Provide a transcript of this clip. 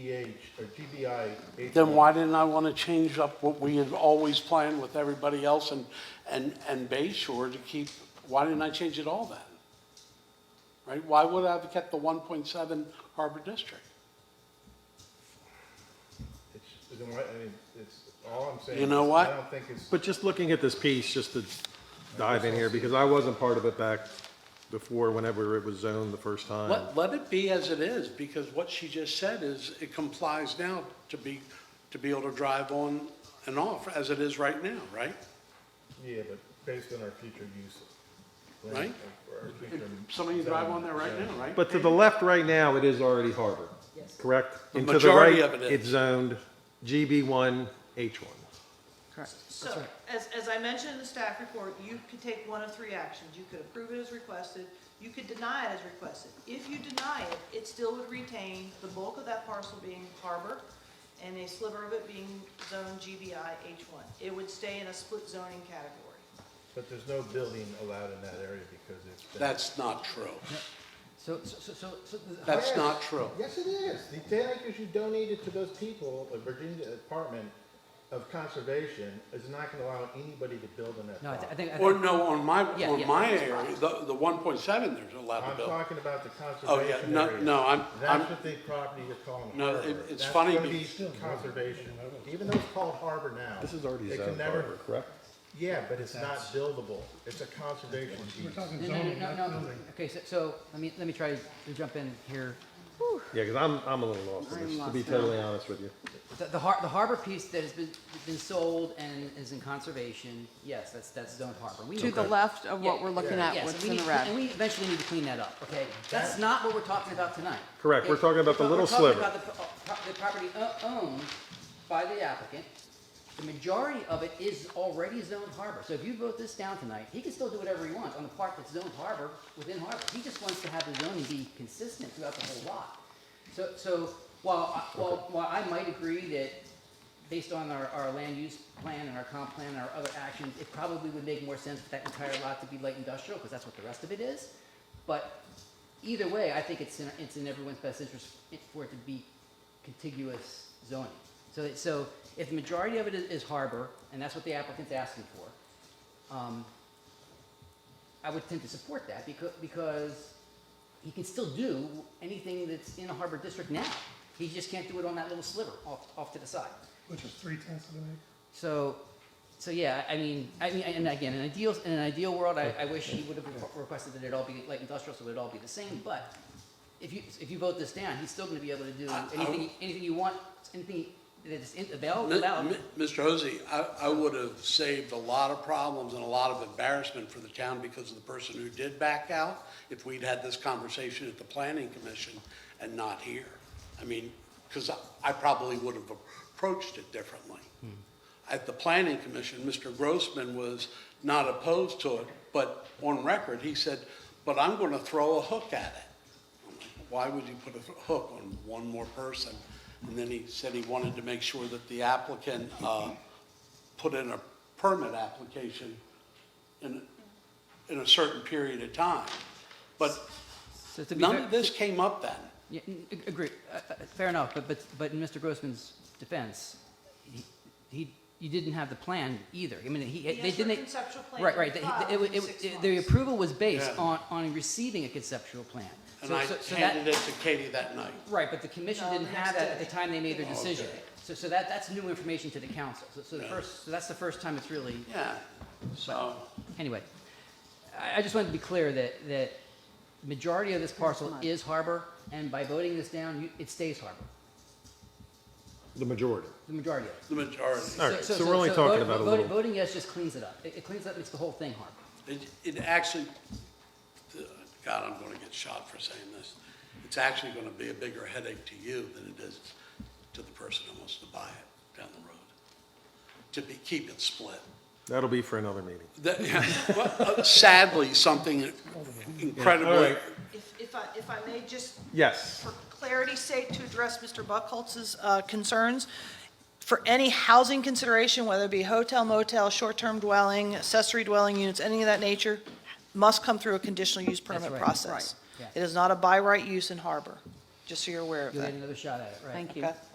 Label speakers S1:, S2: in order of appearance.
S1: TBH or TBI.
S2: Then why didn't I want to change up what we had always planned with everybody else and, and, and Bay Shore to keep, why didn't I change it all then? Right, why would I have kept the one point seven Harbor District?
S1: It's- Then why, I mean, it's, all I'm saying.
S2: You know
S1: is
S2: what?
S1: I don't think it's,
S3: But just looking at this piece, just to dive in here, because I wasn't part of it back before, whenever it was zoned the first time.
S2: Let, let it be as it is, because what she just said is, it complies now to be, to be able to drive on and off as it is right now, right?
S1: yeah, but based on our future use. plan,
S2: Right?
S1: or our future-
S2: Somebody drive on there right now, right?
S3: But to the left right now, it is already harbor, correct?
S2: The
S3: And to the right,
S2: majority of it is.
S3: It's zoned GB1, H1.
S4: So, as, as I mentioned in the staff report, you could take one of three actions. You could approve it as requested, you could deny it as requested. If you deny it, it still would retain the bulk of that parcel being harbor and a sliver of it being zone GBI H1. It would stay in a split zoning category.
S1: But there's no building allowed in that area because it's. been-
S2: That's not true.
S5: So, so, so- so, so. the-
S2: That's
S1: Yes.
S2: not true.
S1: Yes, it is. The ten acres you donated to those people, the Virginia Department of Conservation is not gonna allow anybody to build in that
S5: No, I thi- I
S1: property.
S5: think, I
S2: Or
S5: think,
S2: no, on my,
S5: Yeah, yeah,
S2: on my
S5: that's
S2: area,
S5: fine.
S2: the, the one point seven, there's allowed to
S1: I'm
S2: build.
S1: talking about the
S2: Oh, yeah,
S1: conservation
S2: no,
S1: area.
S2: no, I'm, I'm,
S1: That's what the property you're calling
S2: No,
S1: harbor.
S2: it- it's
S1: That's
S2: funny
S1: gonna
S2: be-
S1: be Conservation, even though it's called harbor now.
S3: This is already
S1: it can
S3: zoned
S1: never-
S3: harbor, correct?
S1: Yeah, but it's not buildable. It's a conservation easement.
S5: no, no, no, no, no, okay, so, so, let me, let me try to jump in here.
S3: Yeah, because I'm, I'm a little lost,
S5: I'm
S3: with this, to
S5: lost
S3: be
S5: now.
S3: totally honest with you.
S5: The, the har, the harbor piece that has been, been sold and is in conservation, yes, that's, that's zoned harbor. We
S6: to
S5: need-
S6: the left of what
S5: Yeah,
S6: we're looking
S5: yeah,
S6: at,
S5: yes,
S6: what's
S5: we
S6: in
S5: need-
S6: the red.
S5: And we eventually need to clean that up, okay? That's not what we're talking about tonight.
S3: Correct, we're
S5: Okay?
S3: talking about the
S5: We're
S3: little
S5: talking
S3: sliver.
S5: about the pro- uh, pro- The property o- owned by the applicant, the majority of it is already zoned harbor. So if you vote this down tonight, he can still do whatever he wants on the part that's zoned harbor, within harbor. He just wants to have the zoning be consistent throughout the whole lot. So, so while, I- while, while I might agree that based on our, our land use plan and our comp plan and our other actions, it probably would make more sense for that entire lot to be light industrial, because that's what the rest of it is. But either way, I think it's in, it's in everyone's best interest i- for it to be contiguous zoning. So, it- so if the majority of it is, is harbor, and that's what the applicant's asking for, um, I would tend to support that because, because he can still do anything that's in a harbor district now. He just can't do it on that little sliver off, off to the side.
S7: Which is three tenths of an acre.
S5: So, so yeah, I mean, I mean, and again, in an ideal, in an ideal world, I, I wish he would have requested that it all be like industrial, so it would all be the same, but if you, if you vote this down, he's still gonna be able to do
S2: I- I-
S5: anything, anything you want, anything that's in- available,
S2: Mi-
S5: allowed.
S2: Mi- Mr. Hosey, I, I would have saved a lot of problems and a lot of embarrassment for the town because of the person who did back out if we'd had this conversation at the planning commission and not here. I mean, because I, I probably would have approached it differently. At the planning commission, Mr. Grossman was not opposed to it, but on record, he said, but I'm going to throw a hook at it. I'm like, Why would you put a hook on one more person? And then he said he wanted to make sure that the applicant uh, put in a permit application in, in a certain period of time. But
S5: So to be
S2: none
S5: fair,
S2: of this came up then.
S5: yeah, n- ag- agree, Uh, uh, fair enough, but, but, but in Mr. Grossman's defense, he- he, you didn't have the plan either, I mean, he,
S4: He
S5: they
S4: has their
S5: didn't.
S4: conceptual plan
S5: Right, right.
S4: to
S5: It-
S4: be filed
S5: it- it-
S4: within
S5: it-
S4: six
S5: The
S4: months.
S5: approval was based
S2: Yeah.
S5: on, on receiving a conceptual plan.
S2: And
S5: So-
S2: I
S5: so- so that-
S2: handed it to Katie that night.
S5: Right, but the commission
S4: No,
S5: didn't
S4: the
S5: have
S4: next
S5: that at the
S4: day.
S5: time they made their
S2: Okay.
S5: decision. So, so that, that's new information to the council. So, so the
S2: Yeah.
S5: first, so that's the first time it's really,
S2: Yeah, so,
S5: anyway. I, I just wanted to be clear that, that majority of this parcel is harbor, and by voting this down, you, it stays harbor,
S3: The majority.
S5: the majority of it.
S2: the majority.
S3: All right, so we're only talking
S5: vote-
S3: about a
S5: vote-
S3: little-
S5: Voting yes just cleans it up. It it cleans up, makes the whole thing harbor.
S2: It, it actually, God, I'm gonna get shot for saying this. It's actually gonna be a bigger headache to you than it is to the person who wants to buy it down the road. To be, keep it split.
S3: That'll be for another meeting.
S2: That- Sadly, something incredibly,
S3: right.
S4: If, if I, if I may just
S3: Yes.
S4: for clarity's sake, to address Mr. Buckholz's uh, concerns, for any housing consideration, whether it be hotel, motel, short-term dwelling, accessory dwelling units, any of that nature, must come through a conditional use permit
S5: right.
S4: process.
S5: Right.
S4: It is not a by right use in harbor,
S5: just so you're aware of
S4: You'll
S5: that.
S4: get another shot at it, right?
S5: Thank you.
S8: Okay.